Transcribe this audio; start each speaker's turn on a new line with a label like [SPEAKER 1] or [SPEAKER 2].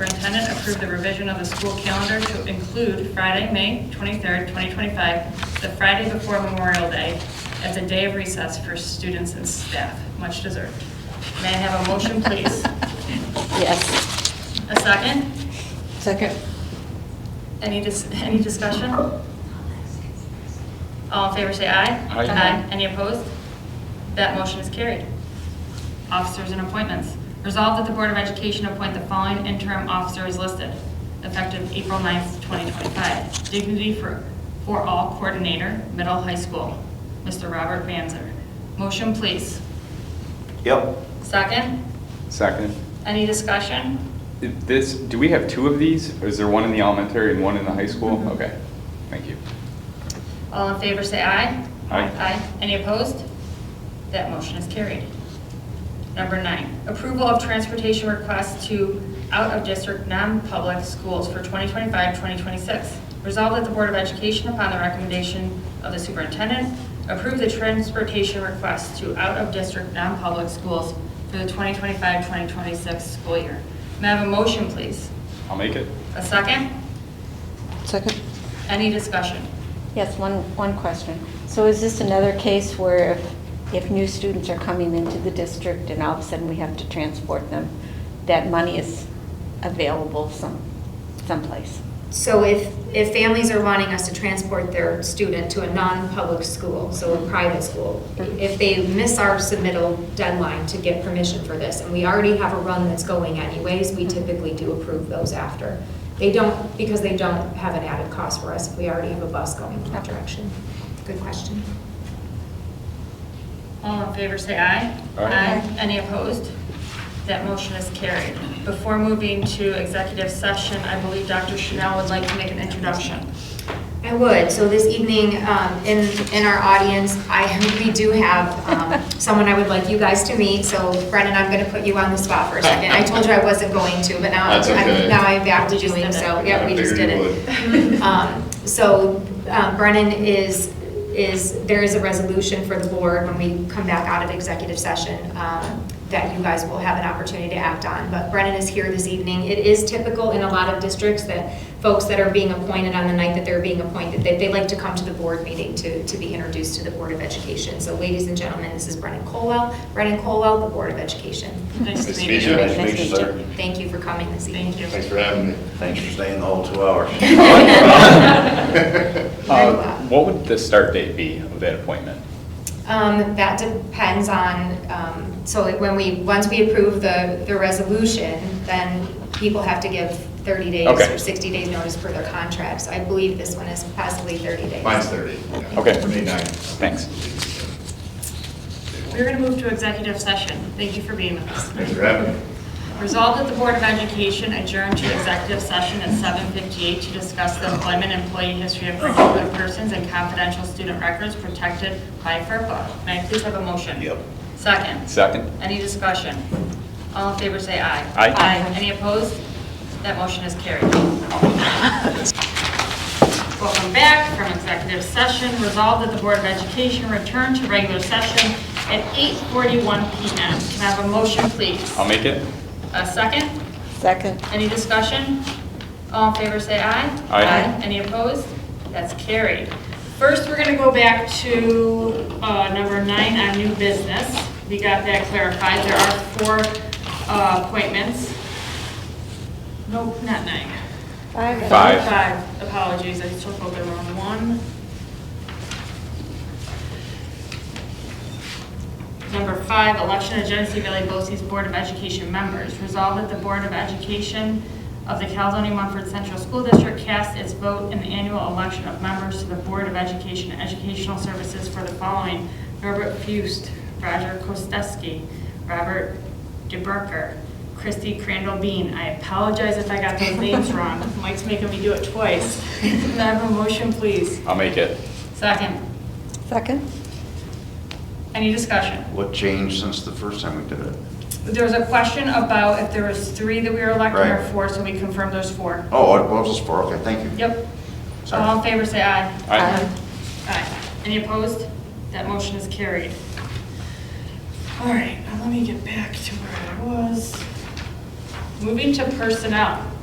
[SPEAKER 1] Superintendent approved the revision of the school calendar to include Friday, May 23rd, 2025, the Friday before Memorial Day, as a day of recess for students and staff. Much deserved. May I have a motion, please?
[SPEAKER 2] Yes.
[SPEAKER 1] A second?
[SPEAKER 2] Second.
[SPEAKER 1] Any, dis- any discussion? All in favor, say aye.
[SPEAKER 3] Aye.
[SPEAKER 1] Any opposed? That motion is carried. Officers and appointments. Resolved that the Board of Education appoint the following interim officers listed, effective April 9th, 2025. Dignity for, for all coordinator, middle high school, Mr. Robert Banzer. Motion, please.
[SPEAKER 4] Yep.
[SPEAKER 1] Second?
[SPEAKER 3] Second.
[SPEAKER 1] Any discussion?
[SPEAKER 3] This, do we have two of these? Or is there one in the elementary and one in the high school?
[SPEAKER 5] Mm-hmm.
[SPEAKER 1] Mhm.
[SPEAKER 3] Okay, thank you.
[SPEAKER 1] All in favor, say aye.
[SPEAKER 3] Aye.
[SPEAKER 1] Any opposed? That motion is carried. Number nine, approval of transportation requests to out-of-district non-public schools for 2025-2026. Resolved at the Board of Education upon the recommendation of the superintendent, approve the transportation requests to out-of-district non-public schools for the 2025-2026 school year. May I have a motion, please?
[SPEAKER 3] I'll make it.
[SPEAKER 1] A second?
[SPEAKER 2] Second.
[SPEAKER 1] Any discussion?
[SPEAKER 2] Yes, one, one question. So is this another case where if, if new students are coming into the district and all of a sudden we have to transport them, that money is available some, someplace?
[SPEAKER 5] So if, if families are wanting us to transport their student to a non-public school, so a private school, if they miss our submittal deadline to get permission for this, and we already have a run that's going anyways, we typically do approve those after. They don't, because they don't have an added cost for us if we already have a bus going in that direction. Good question.
[SPEAKER 1] All in favor, say aye.
[SPEAKER 3] Aye.
[SPEAKER 1] Any opposed? That motion is carried. Before moving to executive session, I believe Dr. Chanel would like to make an introduction.
[SPEAKER 5] I would. So this evening, um, in, in our audience, I, we do have um, someone I would like you guys to meet. So Brennan, I'm going to put you on the spot for a second. I told you I wasn't going to, but now, I'm-
[SPEAKER 6] That's okay.
[SPEAKER 5] I'm- now I'm back to
[SPEAKER 1] We just
[SPEAKER 5] doing
[SPEAKER 1] did it.
[SPEAKER 5] so. Yeah,
[SPEAKER 6] I
[SPEAKER 5] we just did
[SPEAKER 6] figured you
[SPEAKER 5] it. Um, So um, Brennan is, is, there is a resolution for the board when we come back out of executive session um, that you guys will have an opportunity to act on. But Brennan is here this evening. It is typical in a lot of districts that folks that are being appointed on the night that they're being appointed, they, they like to come to the board meeting to, to be introduced to the Board of Education. So ladies and gentlemen, this is Brennan Colwell, Brennan Colwell, the Board of Education.
[SPEAKER 1] Nice
[SPEAKER 6] Nice
[SPEAKER 1] to
[SPEAKER 6] to
[SPEAKER 1] meet
[SPEAKER 6] meet you.
[SPEAKER 1] you.
[SPEAKER 6] Nice to meet you, sir.
[SPEAKER 5] Thank you for coming this evening.
[SPEAKER 1] Thank you.
[SPEAKER 6] Thanks for having me.
[SPEAKER 4] Thanks for staying the whole two hours.
[SPEAKER 5] Very
[SPEAKER 3] Uh,
[SPEAKER 5] well.
[SPEAKER 3] What would the start date be of that appointment?
[SPEAKER 5] Um, That depends on, um, so it- when we, once we approve the, the resolution, then people have to give 30 days
[SPEAKER 3] Okay.
[SPEAKER 5] or 60 days notice for their contracts. I believe this one is possibly 30 days.
[SPEAKER 6] Mine's 30. yeah.
[SPEAKER 3] Okay.
[SPEAKER 6] May 9.
[SPEAKER 3] Thanks.
[SPEAKER 1] We're going to move to executive session. Thank you for being with us.
[SPEAKER 6] Thanks for having me.
[SPEAKER 1] Resolved that the Board of Education adjourn to executive session at 7:58 to discuss the employment, employee history of particular persons, and confidential student records protected by FERPA. May I please have a motion?
[SPEAKER 4] Yep.
[SPEAKER 1] Second?
[SPEAKER 3] Second?
[SPEAKER 1] Any discussion? All in favor, say aye.
[SPEAKER 3] Aye.
[SPEAKER 1] Any opposed? That motion is carried. Welcome back from executive session. Resolved that the Board of Education return to regular session at 8:41 PM. Can I have a motion, please?
[SPEAKER 3] I'll make it.
[SPEAKER 1] A second?
[SPEAKER 2] Second.
[SPEAKER 1] Any discussion? All in favor, say aye.
[SPEAKER 3] Aye.
[SPEAKER 1] Any opposed? That's carried. First, we're going to go back to uh, number nine on new business. We got that clarified. There are four uh, appointments. Nope, not nine.
[SPEAKER 2] Five.
[SPEAKER 3] Five.
[SPEAKER 1] Five, apologies, I took over the wrong one. Number five, election of Genesee Valley BOCES Board of Education members. Resolved that the Board of Education of the Caledonia Munford Central School District cast its vote in the annual election of members to the Board of Education and Educational Services for the following: Norbert Fust, Roger Kosteski, Robert DeBrucker, Christy Crandall Bean. I apologize if I got those names wrong. Mike's making me do it twice. Can I have a motion, please?
[SPEAKER 3] I'll make it.
[SPEAKER 1] Second.
[SPEAKER 2] Second.
[SPEAKER 1] Any discussion?
[SPEAKER 4] What changed since the first time we did it?
[SPEAKER 1] There was a question about if there was three that we were electing or
[SPEAKER 4] Right.
[SPEAKER 1] four, so we confirmed there's four.
[SPEAKER 4] Oh, it was just four, okay, thank you.
[SPEAKER 1] Yep.
[SPEAKER 4] Sorry.
[SPEAKER 1] All in favor, say aye.
[SPEAKER 3] Aye.
[SPEAKER 2] Aye.
[SPEAKER 1] Aye. Any opposed? That motion is carried. All right, now let me get back to where I was. Moving to personnel.